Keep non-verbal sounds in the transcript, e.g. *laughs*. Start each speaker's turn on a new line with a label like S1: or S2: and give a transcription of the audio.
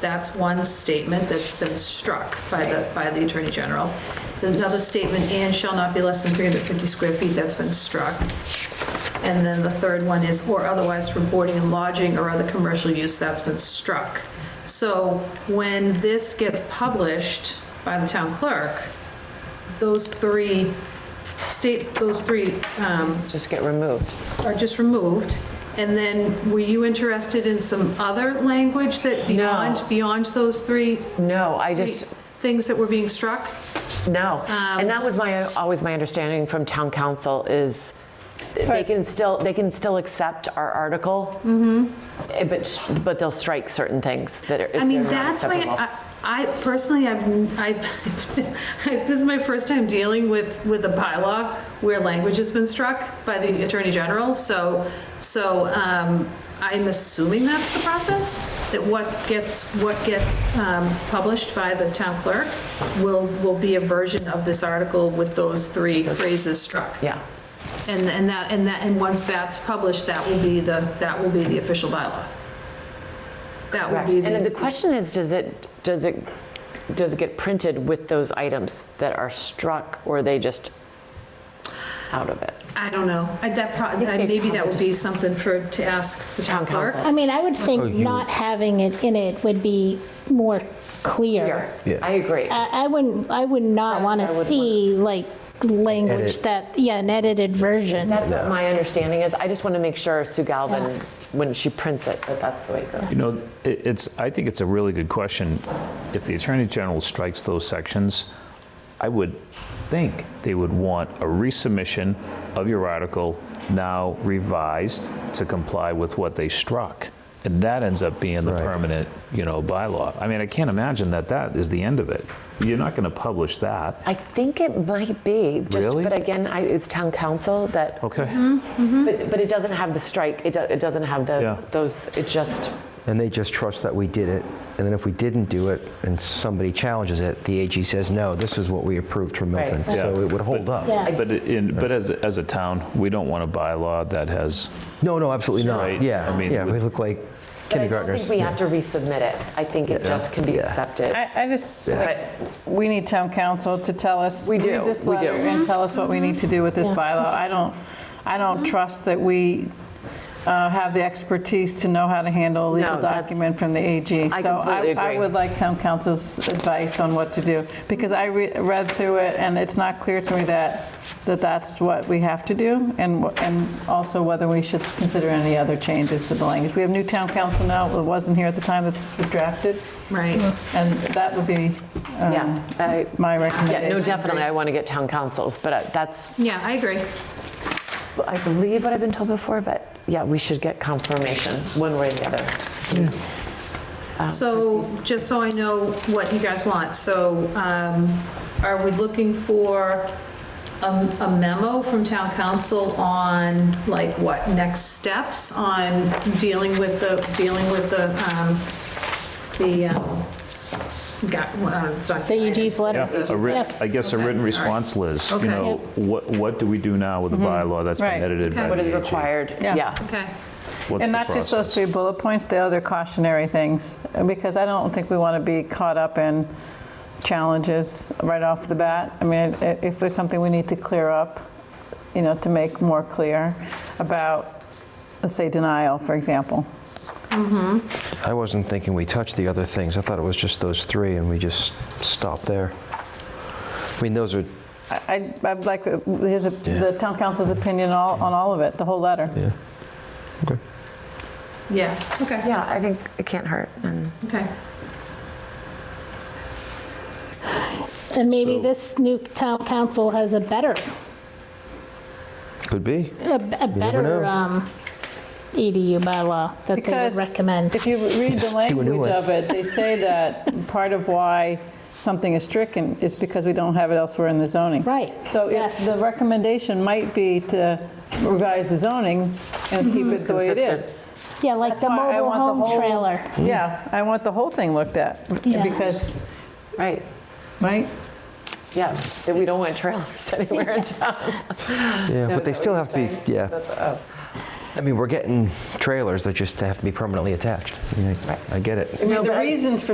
S1: that's one statement that's been struck by the, by the Attorney General. There's another statement, and shall not be less than 350 square feet, that's been struck. And then the third one is, or otherwise for boarding and lodging or other commercial use, that's been struck. So when this gets published by the town clerk, those three state, those three um,
S2: Let's just get removed.
S1: are just removed. And then, were you interested in some other language that beyond, beyond those three
S2: No, I
S1: three
S2: just,
S1: things that were being struck?
S2: no.
S1: Um,
S2: And that was my, always my understanding from town council is they
S3: Right.
S2: can still, they can still accept our article. eh, But, sh- but they'll strike certain things that are. if
S1: Mm-hmm. I mean,
S2: they're not
S1: that's my,
S2: acceptable.
S1: I I personally, I've, *laughs* I've, this is my first time dealing with, with a bylaw where language has been struck by the Attorney General, so, so um, I'm assuming that's the process, that what gets, what gets um, published by the town clerk will, will be a version of this article with those three phrases struck.
S2: Yeah.
S1: And, and that, and that, and once that's published, that will be the, that will be the official bylaw. That will
S2: Correct.
S1: be the.
S2: And the question is, does it, does it, does it get printed with those items that are struck or are they just out of it?
S1: I don't know. I- That pro-
S2: think they
S1: maybe that would
S2: probably
S1: be something for, to ask the town clerk.
S3: I mean, I would
S4: Oh,
S3: think
S4: you-
S3: not having it in it would be more clear.
S4: Yeah.
S2: I agree.
S3: I I wouldn't, I would not
S2: That's
S3: want
S2: what I
S3: to
S2: would
S3: see like language
S4: Edit.
S3: that, yeah, an edited version.
S2: That's what my understanding is. I just want to make sure Sue Galvin, when she prints it, that that's the way it goes.
S5: You know, it- it's, I think it's a really good question. If the Attorney General strikes those sections, I would think they would want a resubmission of your article now revised to comply with what they struck. And that ends up being the
S4: Right.
S5: permanent, you know, bylaw. I mean, I can't imagine that that is the end of it. You're not going to publish that.
S2: I think it might be, just,
S5: Really?
S2: but again, I, it's town council that,
S5: Okay.
S2: but, but it doesn't have the strike, it, do, it doesn't have the,
S5: Yeah.
S2: those, it just,
S4: And they just trust that we did it. And then if we didn't do it and somebody challenges it, the AG says, no, this is what we approved for Milton.
S2: Right.
S4: So
S5: Yeah.
S4: it would hold up.
S3: Yeah.
S5: But in, but as, as a town, we don't want a bylaw that has,
S4: No, no, absolutely not.
S5: Right.
S4: Yeah.
S5: I mean,
S4: yeah, we
S5: with-
S4: look like
S2: but I don't think
S4: kindergartners.
S2: we have to resubmit it. I think it just can be
S4: Yeah.
S2: accepted.
S6: I, I just, like, we need town council to tell us.
S2: We do,
S6: read this
S2: we do.
S6: letter And tell us what we need to do with this bylaw. I don't, I don't trust that we uh, have the expertise to know how to handle a legal
S2: No, that's-
S6: document from the AG.
S2: I
S6: So
S2: completely
S6: I
S2: agree.
S6: would like town council's advice on what to do, because I re- read through it, and it's not clear to me that, that that's what we have to do, and, wh- and also whether we should consider any other changes to the language. We have new town council now, it wasn't here at the time that this was drafted.
S1: Right.
S6: And that would be um,
S2: Yeah, I-
S6: my
S2: Yeah,
S6: recommendation.
S2: no, definitely, I want to get town councils, but uh, that's,
S1: Yeah, I agree.
S2: I believe what I've been told before, but yeah, we should get confirmation one way or the other. So-
S1: So just so Um, I know what you guys want, so um, are we looking for a a memo from town council on like what, next steps on dealing with the, dealing with the, um, the, um, got, uh, well, it's not.
S3: The EG's letter.
S5: Yeah, a writ-
S3: Yes.
S5: I guess a written response, Liz. You
S1: Okay.
S5: know, what, what do we do now with the bylaw that's been
S6: Right.
S5: edited by
S1: Okay.
S2: What is
S5: the AG?
S2: required,
S6: Yeah.
S2: yeah.
S1: Okay,
S5: What's
S6: And
S5: the
S6: not just those
S5: process?
S6: three bullet points, the other cautionary things, because I don't think we want to be caught up in challenges right off the bat. I mean, i- if there's something we need to clear up, you know, to make more clear about, let's say, denial, for example.
S4: I wasn't thinking we touched the other things. I thought it was just those three and we just stopped there. I mean, those are,
S6: I- I'd I'd like uh, his, the town council's opinion all- on all of it, the whole letter.
S4: yeah. Okay.
S1: yeah, okay,
S2: Yeah, I think it can't hurt. And
S1: okay.
S3: And maybe
S5: So-
S3: this new town council has a better,
S4: Could be.
S3: a a better
S4: know.
S3: um, EDU bylaw that they would
S6: Because
S3: recommend.
S6: If you read the
S4: Just do a new one.
S6: language of it, they say that part of why something is stricken is because we don't have it elsewhere in the zoning.
S3: Right,
S6: So if
S3: yes.
S6: the recommendation might be to revise the zoning and keep it the way it is.
S2: Consistent.
S3: Yeah, like
S6: That's
S3: the
S6: why I
S3: Mm-hmm. mobile
S6: want the
S3: home
S6: whole-
S3: trailer.
S6: Yeah, I want the whole thing looked at
S3: Yeah.
S6: because,
S2: Right,
S6: right?
S2: yeah, that we don't want trailers *laughs* anywhere in town.
S4: Yeah, but they
S2: Is that
S4: still
S2: what
S4: have to
S2: you're
S4: be,
S2: saying?
S4: yeah.
S2: That's- oh,
S4: I mean, we're getting trailers that just have to be permanently attached. I mean, I- I get it.
S6: I mean,
S2: but
S6: the
S2: I-
S6: reasons for